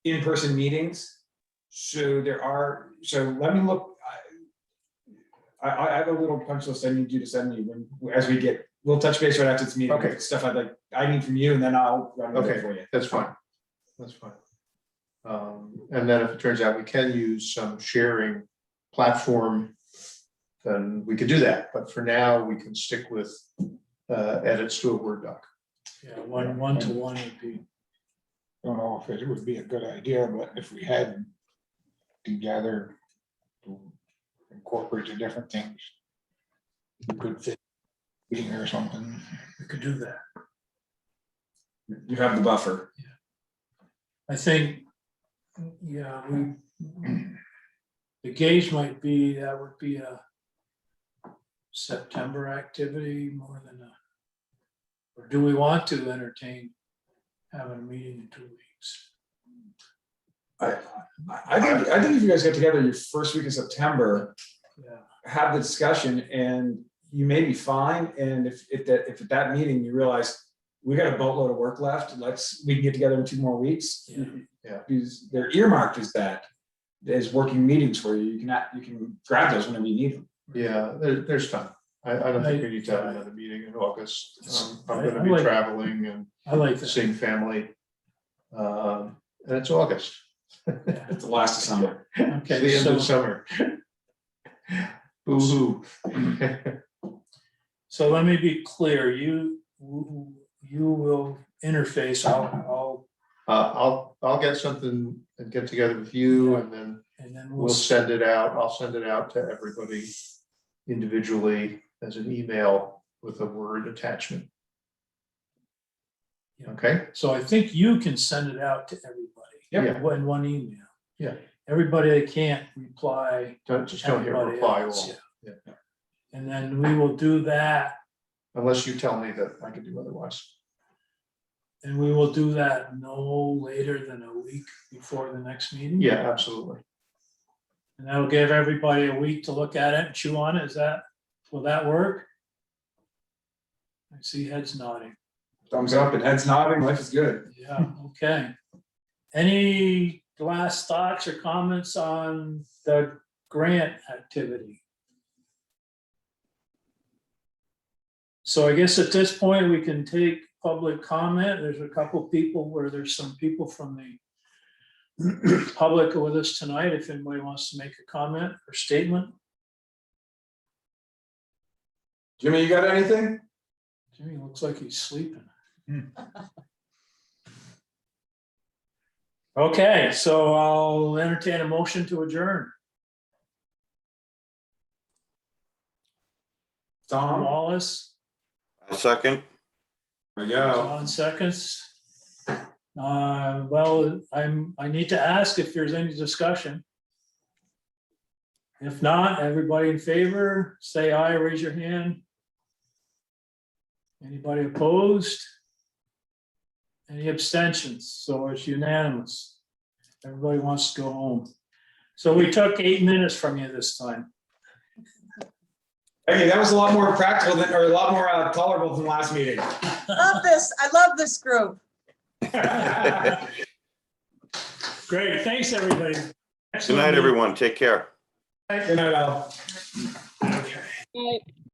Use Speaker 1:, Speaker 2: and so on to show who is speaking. Speaker 1: in-person meetings. So there are, so let me look. I- I, I have a little punch list I need you to send me when, as we get, we'll touch base right after this meeting.
Speaker 2: Okay.
Speaker 1: Stuff I'd like, I need from you and then I'll run it
Speaker 2: Okay.
Speaker 1: for you.
Speaker 2: That's fine. That's fine. Um, and then if it turns out we can use some sharing platform, then we could do that. But for now, we can stick with uh, edits to a Word doc.
Speaker 3: Yeah, one, one to one would be,
Speaker 4: don't know if it would be a good idea, but if we had to gather to incorporate the different things. we Could fit meeting or something.
Speaker 3: we could do that.
Speaker 1: You have the buffer.
Speaker 3: I think, yeah, we, the gauge might be, that would be a September activity more than a, or do we want to entertain having a meeting in two weeks?
Speaker 1: I, I- I think, I think if you guys get together your first week of September,
Speaker 3: Yeah,
Speaker 1: have the discussion and you may be fine. And if, if that, if at that meeting you realize we got a boatload of work left, let's, we can get together in two more weeks.
Speaker 3: Yeah.
Speaker 2: Yeah.
Speaker 1: Because they're earmarked as that, as working meetings for you. You cannot, you can grab those whenever you need them.
Speaker 2: Yeah, there, there's time. I, I don't think we need to have another meeting in August. Um, I'm gonna
Speaker 3: I- I
Speaker 2: be
Speaker 3: like-
Speaker 2: traveling and
Speaker 3: I like that.
Speaker 2: seeing family. Um, and it's August,
Speaker 3: yeah.
Speaker 1: It's the last of summer.
Speaker 2: the
Speaker 3: Okay,
Speaker 2: end of
Speaker 3: so,
Speaker 2: summer. Boo hoo.
Speaker 3: so let me be clear, you, you will interface, I'll, I'll,
Speaker 2: Uh, I'll, I'll get something and get together with you and then
Speaker 3: and then
Speaker 2: We'll
Speaker 3: we'll,
Speaker 2: send it out. I'll send it out to everybody individually as an email with a word attachment.
Speaker 3: Yeah.
Speaker 2: Okay,
Speaker 3: so I think you can send it out to everybody.
Speaker 1: Yep.
Speaker 2: yeah,
Speaker 3: in one email.
Speaker 2: Yeah.
Speaker 3: Everybody that can't reply.
Speaker 2: don't, just don't hit
Speaker 3: everybody
Speaker 2: reply
Speaker 3: else,
Speaker 2: all,
Speaker 3: yeah. And then we will do that,
Speaker 2: unless you tell me that I can do otherwise.
Speaker 3: and we will do that no later than a week before the next meeting.
Speaker 2: Yeah, absolutely.
Speaker 3: And that'll give everybody a week to look at it and chew on it. Is that, will that work? I see heads nodding.
Speaker 1: Thumbs up and heads nodding, life is good.
Speaker 3: Yeah, okay. Any last thoughts or comments on the grant activity? So I guess at this point, we can take public comment. There's a couple people where there's some people from the public with us tonight, if anybody wants to make a comment or statement.
Speaker 1: Jimmy, you got anything?
Speaker 3: Jimmy looks like he's sleeping. Okay, so I'll entertain a motion to adjourn. Tom
Speaker 1: Tom?
Speaker 3: Wallace,
Speaker 5: A second,
Speaker 1: There we go.
Speaker 3: John seconds. Uh, well, I'm, I need to ask if there's any discussion. If not, everybody in favor, say aye, raise your hand. Anybody opposed? Any abstentions? So it's unanimous. Everybody wants to go home. So we took eight minutes from you this time.
Speaker 1: Okay, that was a lot more practical than, or a lot more uh, tolerable than last meeting.
Speaker 6: Love this. I love this group.
Speaker 3: Great, thanks, everybody.
Speaker 5: good night, everyone, take care.
Speaker 1: Good night, all.
Speaker 3: Okay.